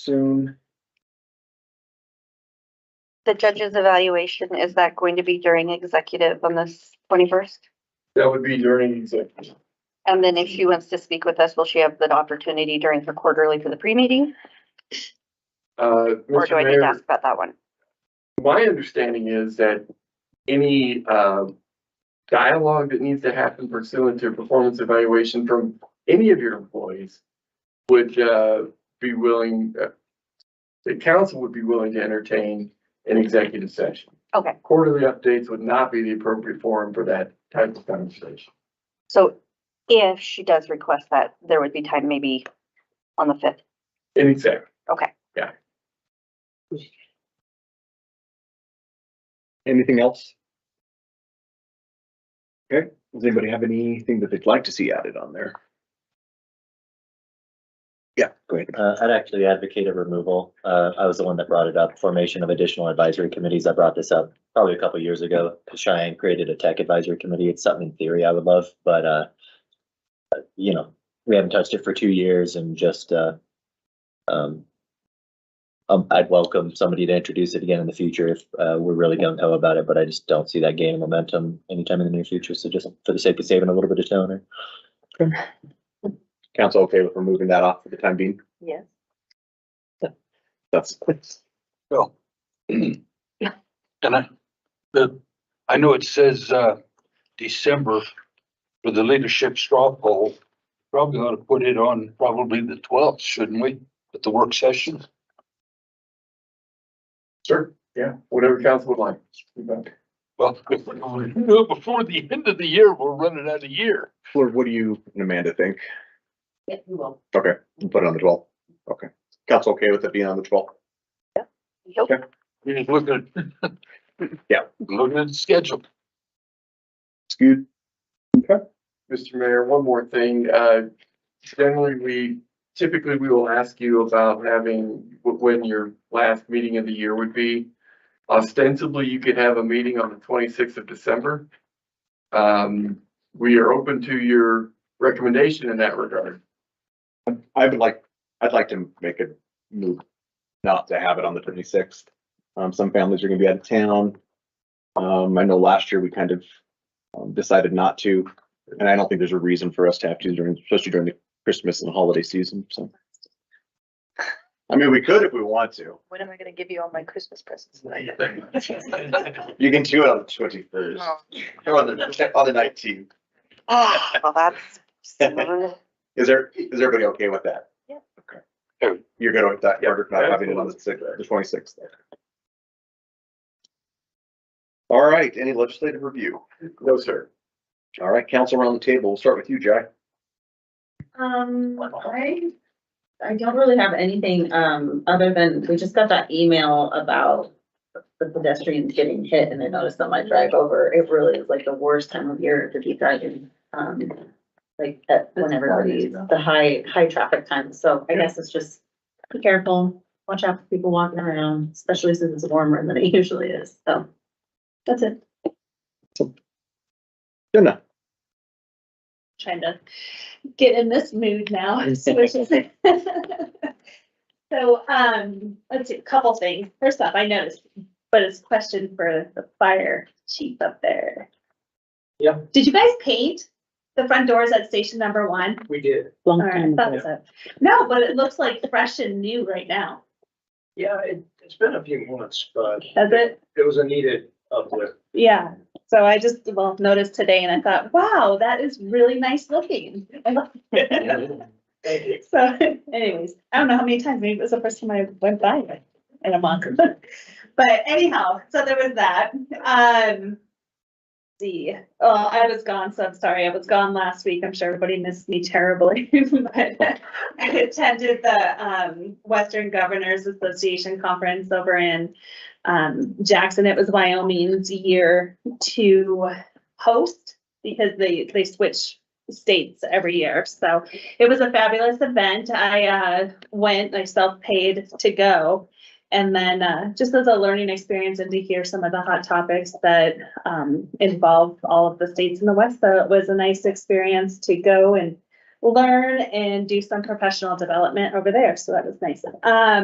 soon. The judge's evaluation, is that going to be during executive on this twenty-first? That would be during executive. And then if she wants to speak with us, will she have the opportunity during her quarterly for the pre-meeting? Uh, Or Mr. do I need to Mayor, ask about that one? my understanding is that any, um, dialogue that needs to happen pursuant to performance evaluation from any of your employees would, uh, be willing, uh, the council would be willing to entertain an executive session. Okay, Quarterly updates would not be the appropriate forum for that type of conversation. so if she does request that, there would be time maybe on the fifth. In exec, Anything else? Okay, does anybody have anything that they'd like to see added on there? Yeah, go ahead. Uh, I'd actually advocate a removal. Uh, I was the one that brought it up, formation of additional advisory committees. I brought this up probably a couple years ago. Cheyenne created a tech advisory committee. It's something in theory I would love, but, uh, uh, you know, we haven't touched it for two years and just, uh, um, um, I'd welcome somebody to introduce it again in the future if, uh, we're really gung ho about it, but I just don't see that gaining momentum anytime in the near future. So just for the sake of saving a little bit of toner. Council okay with removing that off for the time being? Yes. That's, Well. And I, the, I know it says, uh, December for the leadership straw poll. Probably ought to put it on probably the twelfth, shouldn't we, at the work session? sure, yeah, whatever council would like. Well, if we don't do it before the end of the year, we're running out of year. Lord, what do you and Amanda think? Yeah, we will. Okay, we'll put it on the twelfth. Okay, council okay with it being on the twelfth? Nope. You're just looking at. Yeah. Looking at the schedule. It's good. Mr. Mayor, one more thing. Uh, generally, we, typically, we will ask you about having, wh- when your last meeting of the year would be. Ostensibly, you could have a meeting on the twenty-sixth of December. Um, we are open to your recommendation in that regard. I would like, I'd like to make a move not to have it on the twenty-sixth. Um, some families are gonna be out of town. Um, I know last year we kind of um, decided not to, and I don't think there's a reason for us to have to during, especially during the Christmas and holiday season, so. I mean, we could if we want to. When am I gonna give you all my Christmas presents? You can do it on the twenty-first, Oh. or on the, on the nineteenth. Ah, well, that's. Is there, is everybody okay with that? Yeah. Okay. You're good with that, Yeah, Carter, not having it on the sixth, the twenty-sixth? All right, any legislative review? No, sir. All right, council around the table, we'll start with you, Jai. Um, I, I don't really have anything, um, other than we just got that email about the pedestrians getting hit and I noticed on my drive over, it really is like the worst time of year to be driving. Um, like at when everybody's the high, high traffic time. So I guess it's just be careful, watch out for people walking around, especially since it's warmer than it usually is. So that's it. Jenna. trying to get in this mood now, which is. So, um, let's see, a couple things. First off, I noticed, but it's a question for the fire chief up there. Yeah. Did you guys paint the front doors at station number one? We did. All right, I thought so. No, but it looks like fresh and new right now. Yeah, it, it's been a few months, but Has it? it was a needed uplift. Yeah. So I just, well, noticed today and I thought, wow, that is really nice looking. So anyways, I don't know how many times, maybe it was the first time I went by it in a month. But anyhow, so there was that. Um. See, oh, I was gone, so I'm sorry. I was gone last week. I'm sure everybody missed me terribly. But I attended the um Western Governors Association Conference over in um Jackson. It was Wyoming's year to host because they they switch states every year. So it was a fabulous event. I uh, went, I self-paid to go. And then uh, just as a learning experience and to hear some of the hot topics that um, involve all of the states in the West, so it was a nice experience to go and learn and do some professional development over there, so that was nice. Um,